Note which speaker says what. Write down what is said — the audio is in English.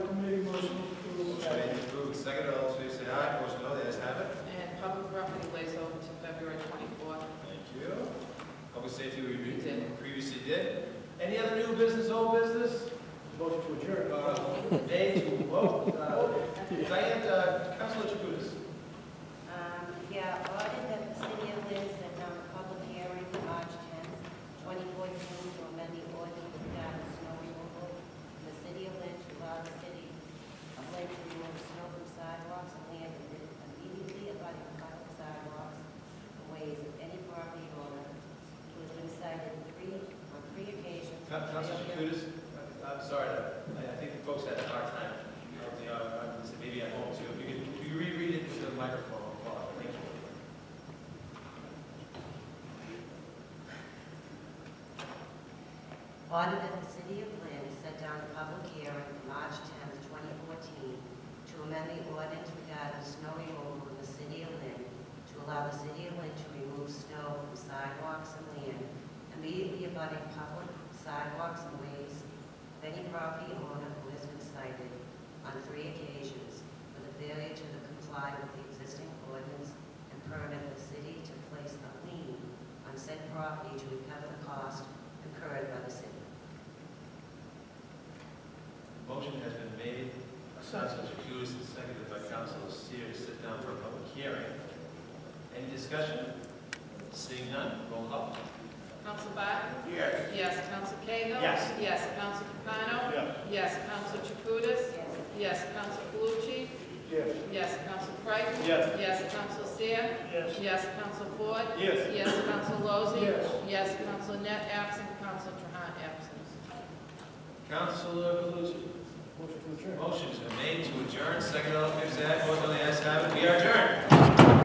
Speaker 1: Nay, whoa, it's not over. Diane, uh, Councilor Chakoudas.
Speaker 2: Um, Yeah, ordered that the city of Liz has held a public hearing on March 10th, 2014, to amend the ordinance regarding snow removal in the city of Lynn to allow the city of Lynn to remove snow from sidewalks and land immediately abutting public sidewalks and ways of any property owner who has been cited three, on three occasions.
Speaker 1: Coun- Councilor Chakoudas, I- I'm sorry, I- I think the folks had a hard time. You know, uh, I said Maybe at home too. If you could, if you reread it with the microphone, Paul, thank you.
Speaker 2: Order that the City of Lynn set down a public hearing for March 10th, 2014, to amend the ordinance regarding snow removal in the City of Lynn to allow the City of Lynn to remove snow from sidewalks and land immediately abutting public sidewalks and ways of any property owner who has been cited on three occasions for the failure to comply with the existing ordinance and permit the city to place a lien on said property to recover the cost incurred by the city.
Speaker 1: Motion has been made by Councilor Chakoudas and seconded by Councilor Seer to sit down for a public hearing. Any discussion? Seeing none, roll call.
Speaker 3: Council Biden?
Speaker 1: Yes.
Speaker 3: Yes. Council Cahill?
Speaker 1: Yes.
Speaker 3: Yes. Council Capano?
Speaker 1: Yes.
Speaker 3: Yes. Council Jacutis?
Speaker 2: Yes.
Speaker 3: Yes. Council Calucci?
Speaker 1: Yes.
Speaker 3: Yes. Council Creighton?
Speaker 1: Yes.
Speaker 3: Yes. Council Seer?
Speaker 1: Yes.
Speaker 3: Yes. Council Ford?
Speaker 1: Yes.
Speaker 3: Yes. Council Lozey?
Speaker 1: Yes.
Speaker 3: Yes. Council Net absent, Council Trahan absent.
Speaker 1: Councilor Calucci. Motion to adjourn. Motion's been made to adjourn, second all in favor, say aye. Vote on the ayes have it.